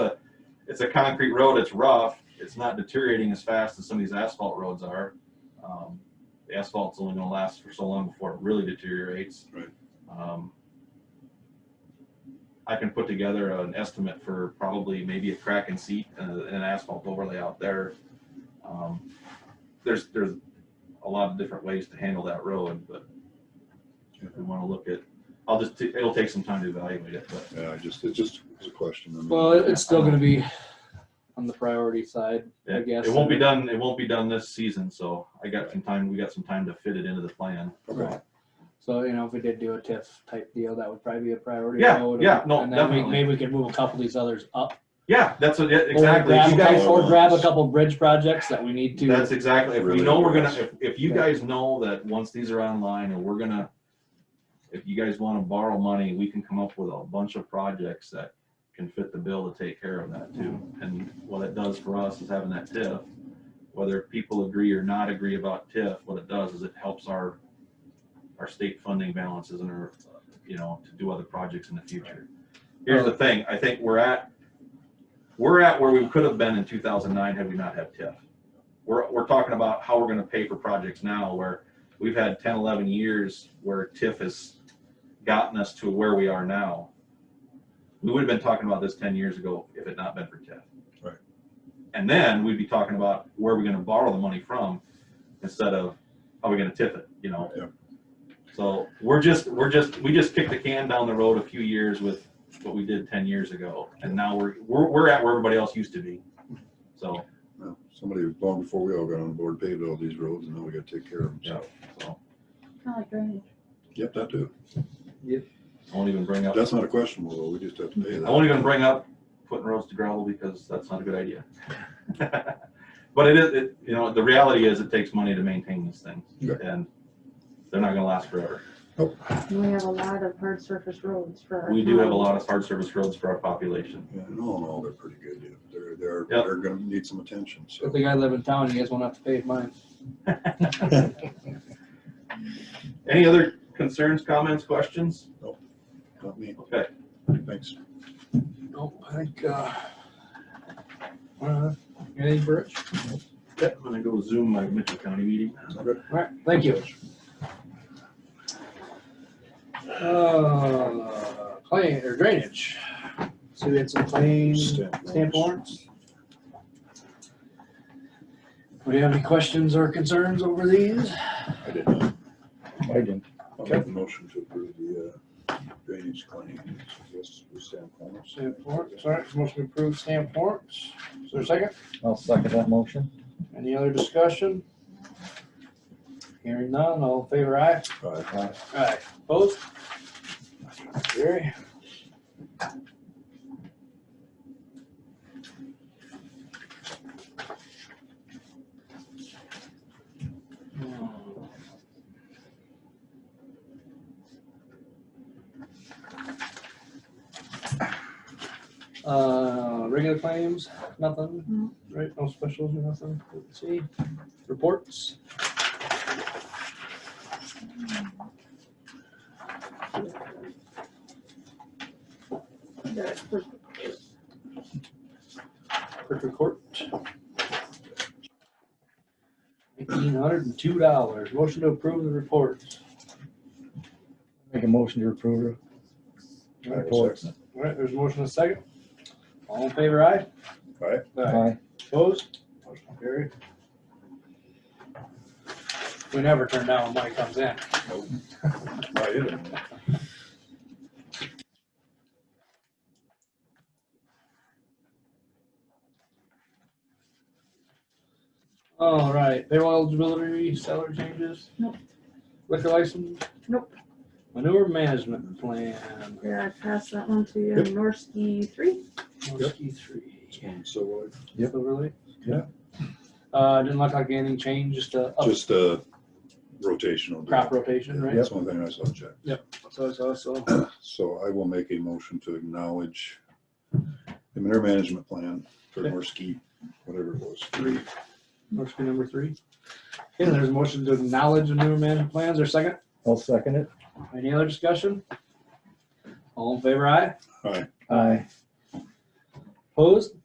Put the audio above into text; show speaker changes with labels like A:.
A: it's a concrete road, it's rough, it's not deteriorating as fast as some of these asphalt roads are. Um, The asphalt's only gonna last for so long before it really deteriorates.
B: Right.
A: Um, I can put together an estimate for probably maybe a crack and seat and a- and an asphalt overlay out there. Um, There's, there's a lot of different ways to handle that road, but if we wanna look at, I'll just, t- it'll take some time to evaluate it, but
B: Yeah, I just, it's just, it's a question. I mean,
C: Well, it- it's still gonna be on the priority side, I
A: It,
C: guess.
A: it won't be done, it won't be done this season, so I got some time, we got some time to fit it into the plan.
B: Okay.
C: So, you know, if we did do a TIF type deal, that would probably be a priority.
A: Yeah,
C: road.
A: yeah, no,
C: And then we-
A: definitely.
C: Maybe we could move a couple of these others up.
A: Yeah, that's what, yeah,
C: Or
A: exactly.
C: grab
A: If
C: a
A: You guys,
C: couple- Or grab a couple bridge projects that we need to,
A: that's exactly, if we
B: Really
A: know we're gonna,
B: impressed.
A: if, if you
C: Yeah.
A: guys know that once these are online and we're gonna, if you guys wanna borrow money, we can come up with a bunch of projects that can fit the bill to take care of that too. And what it does for us is having that TIF, whether people agree or not agree about TIF, what it does is it helps our, our state funding balances and our, you know, to do other projects in the future. Here's the thing, I think we're at, we're at where we could have been in two thousand nine had we not had TIF. We're, we're talking about how we're gonna pay for projects now where we've had 10, 11 years where TIF has gotten us to where we are now. We would have been talking about this ten years ago if it not been for TIF.
B: Right.
A: And then we'd be talking about where we're gonna borrow the money from instead of how we gonna TIF it, you know?
B: Yep.
A: So we're just, we're just, we just kicked the can down the road a few years with what we did ten years ago, and now we're, we're, we're at where everybody else used to be. So,
B: Well, Somebody long before we all got on board paved all these roads and now we gotta take care of them.
A: yeah,
B: So,
A: so,
D: Kind of like drainage.
B: Yep, that too.
A: I won't even bring up,
B: That's not a question, though. We just have to pay
A: I
B: that.
A: won't even bring up putting roads to gravel because that's not a good idea. But it is, it, you know, the reality is it takes money to maintain these things,
B: Yeah.
A: and they're not gonna last forever.
D: We have a lot of hard surface roads for. our
A: We do have a
D: town.
A: lot of hard service roads for our population.
B: Yeah, And all in all, they're pretty good. dude. They're, they're,
A: Yep.
B: they're gonna need some attention, so.
C: if the guy live in town, you guys won't have to pay mine.
A: Any other concerns, comments, questions?
B: Not me.
A: Okay,
B: Thanks.
C: Nope, I think, uh, uh, anything for Rich?
A: I'm gonna go Zoom my Mitchell County meeting.
B: Okay.
C: All right, thank you. Uh, Claim, or drainage. So we had some claims,
B: Stamp
C: stamp warrants. Do you have any questions or concerns over these?
B: I did not.
E: I didn't.
B: I'll make a motion to approve the uh, drainage claim. Yes, we stamp warrants.
C: Stamp warrants, all right, motion to approve stamp warrants. Is there a second?
E: I'll second that motion.
C: Any other discussion? Hearing none, all in favor, aye?
B: All right.
E: Aye.
C: Aye. Opposed? Gary? Hmm. Uh, regular claims, nothing,
D: No.
C: right, no specials or nothing, let's see, reports?
D: They're- they're-
C: Clerk report. Nineteen hundred and two dollars. Motion to approve the reports.
E: Make a motion to approve.
C: All right,
B: I'll second
C: all right, there's a motion and a second. All in favor, aye?
B: Aye.
E: Aye.
C: Opposed? Motion carried. We never turn down when money comes in.
B: it. All right, you don't know.
C: All right, payroll eligibility, salary changes?
D: Nope.
C: Liquor license?
D: Nope.
C: Manure management plan,
D: Yeah, I passed that one to you, Norski three.
C: Morski three.
B: It's one So, uh,
E: Yep.
C: So really?
B: Yeah.
C: Uh, didn't look like anything changed, just a up-
B: just uh, rotational.
C: crop
B: Yeah,
C: rotation, right?
B: That's one thing I saw check.
C: So, so, so,
B: So I will make a motion to acknowledge the manure management plan for
C: Okay.
B: Norski, whatever it was.
C: three, Morski number three. Okay, there's a motion to acknowledge the new management plans, or second,
E: I'll second it.
C: any other discussion? All in favor, aye,
B: All right,
E: Aye.
C: opposed?